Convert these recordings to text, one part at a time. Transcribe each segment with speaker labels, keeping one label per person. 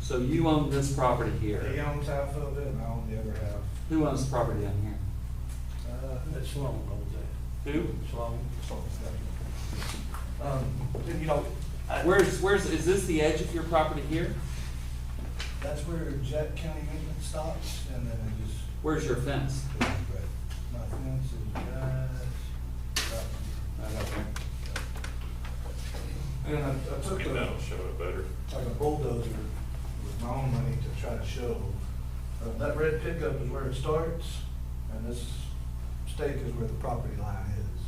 Speaker 1: So you own this property
Speaker 2: He
Speaker 1: here.
Speaker 2: owns half of it, and I own the other half.
Speaker 1: Who owns the property down here?
Speaker 2: Uh,
Speaker 3: That's Sloan owns that.
Speaker 1: Who?
Speaker 3: Sloan.
Speaker 2: something's got to be- Um, you know, I-
Speaker 1: Where's, where's, is this the edge of your property here?
Speaker 2: that's where Jet County Maintenance stops, and then it just,
Speaker 1: Where's your fence?
Speaker 2: my fence is just, about
Speaker 1: Right up there.
Speaker 2: here. and I I took
Speaker 4: And
Speaker 2: a,
Speaker 4: that'll show it better.
Speaker 2: like a bulldozer with my own money to try to show. Uh, That red pickup is where it starts, and this stake is where the property line is.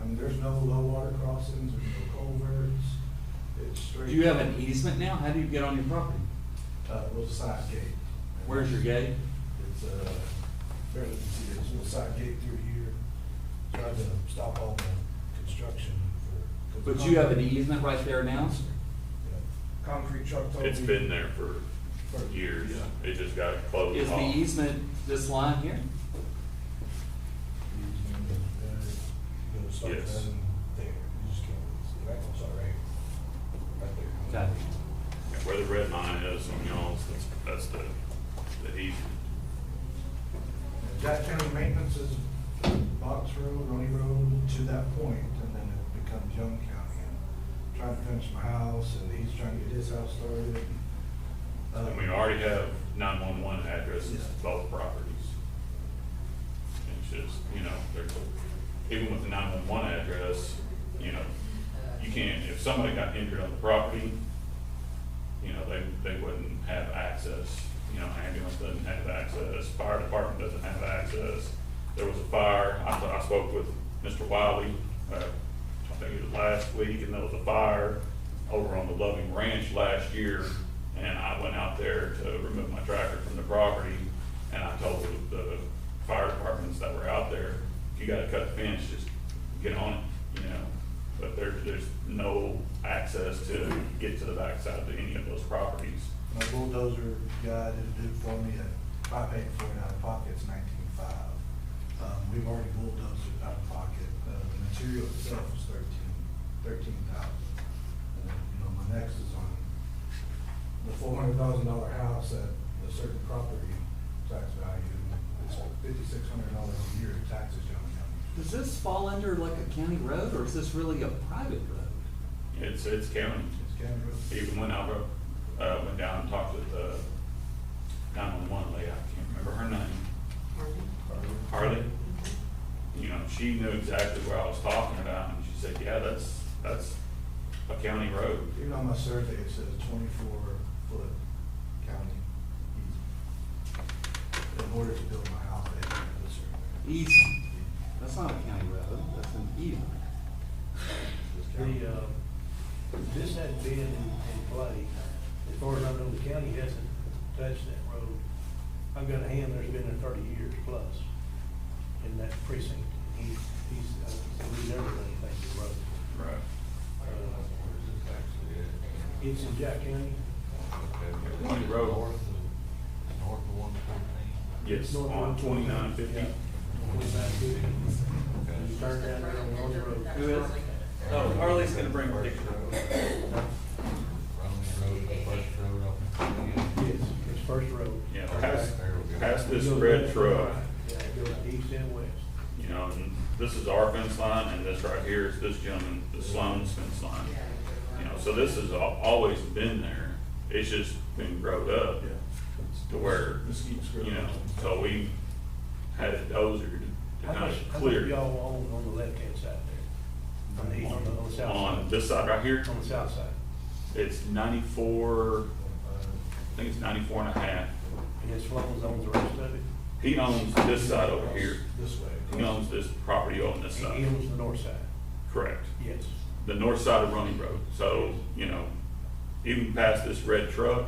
Speaker 2: I mean, there's no low water crossings, there's no culverts, it's straight.
Speaker 1: Do you have an easement now? How do you get on your property?
Speaker 2: Uh, little side gate.
Speaker 1: Where's your gate?
Speaker 2: It's, uh, barely can see, it. it's a little side gate through here, tried to stop all the construction for. 'cause
Speaker 1: But you have an E-
Speaker 2: concrete-
Speaker 1: easement right there now?
Speaker 2: yeah, Concrete truck. told
Speaker 4: It's
Speaker 2: me-
Speaker 4: been there for years. It just got closed
Speaker 1: Is the
Speaker 4: off.
Speaker 1: easement this line here?
Speaker 2: You gotta start
Speaker 4: Yes.
Speaker 2: cutting there, you just can't really see, that goes all right, right there.
Speaker 1: Okay.
Speaker 4: And Where the red line is on y'all's, that's, that's the, the easement.
Speaker 2: Jack County Maintenance is Box Road, Roney Road, to that point, and then it becomes Young County. And Trying to finish my house, and he's trying to get his house started. Uh,
Speaker 4: And we already have nine-one-one addresses,
Speaker 2: Yeah.
Speaker 4: to both properties. It's just, you know, there's, a- even with the nine-one-one address, you know, you can't, if somebody got injured on the property, you know, they, they wouldn't have access. You know, ambulance doesn't have access, fire department doesn't have access. There was a fire, I, I spoke with Mr. Wiley, uh, I think it was last week, and there was a fire over on the Loving Ranch last year. And I went out there to remove my tractor from the property, and I told the, the fire departments that were out there, if you gotta cut the fence, just get on it, you know? But there, there's no access to get to the backside of any of those properties.
Speaker 2: My bulldozer guy did it for me, at- I paid for it out of pocket, it's nineteen-five. Um, we've already bulldozed it out of pocket, uh, the material itself is thirteen, thirteen thousand. And, then, you know, my next is on the four hundred thousand dollar house at a certain property tax value, it's fifty-six hundred dollars a year in taxes, young man.
Speaker 1: Does this fall under like a county road or is this really a private road?
Speaker 4: It's, it's county.
Speaker 2: It's Kendra.
Speaker 4: Even when I wrote, uh, went down and talked with the nine-one-one lady, I can't remember her name, Harley. You know, she knew exactly where I was talking about, and she said, yeah, that's, that's a county road.
Speaker 2: Even on my survey, it says twenty-four foot county easement. In order to build my house, they have to survey.
Speaker 1: Easement. That's not a county road, that's an easement.
Speaker 2: This county-
Speaker 3: The, uh, this hasn't been in, in play, as far as I know, the county hasn't touched that road. I've got a hand that's been there thirty years plus in that precinct. He, he's, uh, we never done anything to the road. Uh,
Speaker 4: Right.
Speaker 3: It's in Jack County.
Speaker 4: County road,
Speaker 5: North of one fourteen.
Speaker 4: yes, on twenty-nine fifty.
Speaker 3: Twenty-nine fifty. You turn down there on North Road.
Speaker 1: Who is? Oh, Harley's gonna bring a picture.
Speaker 5: Roman Road, Bush Road off of
Speaker 3: Yes,
Speaker 5: twenty.
Speaker 3: it's first road.
Speaker 4: Yeah, past, past this red truck,
Speaker 3: Yeah, it goes east and west.
Speaker 4: You know, and this is our fence line, and this right here is this gentleman, the Sloan's fence line. You know, so this has al- always been there, it's just been growed up to where, you know, so we had it dozered to
Speaker 3: How
Speaker 4: kind
Speaker 3: much,
Speaker 4: of
Speaker 3: how much
Speaker 4: clear.
Speaker 3: y'all own on the left-hand side there? On the, east- on the, on the south
Speaker 4: On
Speaker 3: side?
Speaker 4: this side right here,
Speaker 3: On the south side?
Speaker 4: it's ninety-four, I think it's ninety-four and a half.
Speaker 3: And his Sloan's owns the rest of it?
Speaker 4: He owns this side over here,
Speaker 2: This way.
Speaker 4: he owns this property on this
Speaker 3: And he
Speaker 4: side,
Speaker 3: owns the north side?
Speaker 4: correct.
Speaker 3: Yes.
Speaker 4: the north side of Running Road. So, you know, even past this red truck,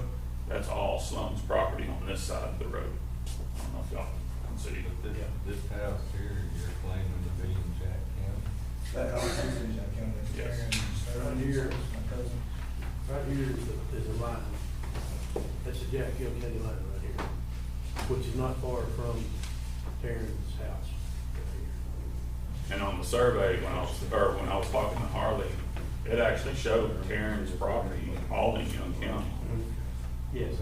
Speaker 4: that's all Slum's property on this side of the road. I don't know if y'all can see.
Speaker 5: This, this house here, you're claiming to be in Jack County.
Speaker 2: That house is in Jack County. It's
Speaker 4: Yes.
Speaker 2: Aaron, it's Aaron, it's my cousin.
Speaker 3: Right here is the, is the line. That's the Jack Hill County line right here, which is not far from Terrence's house.
Speaker 4: And on the survey, when I was, or when I was talking to Harley,
Speaker 3: Mm-hmm.
Speaker 4: it actually showed Karen's property all in Young County.
Speaker 3: Yes,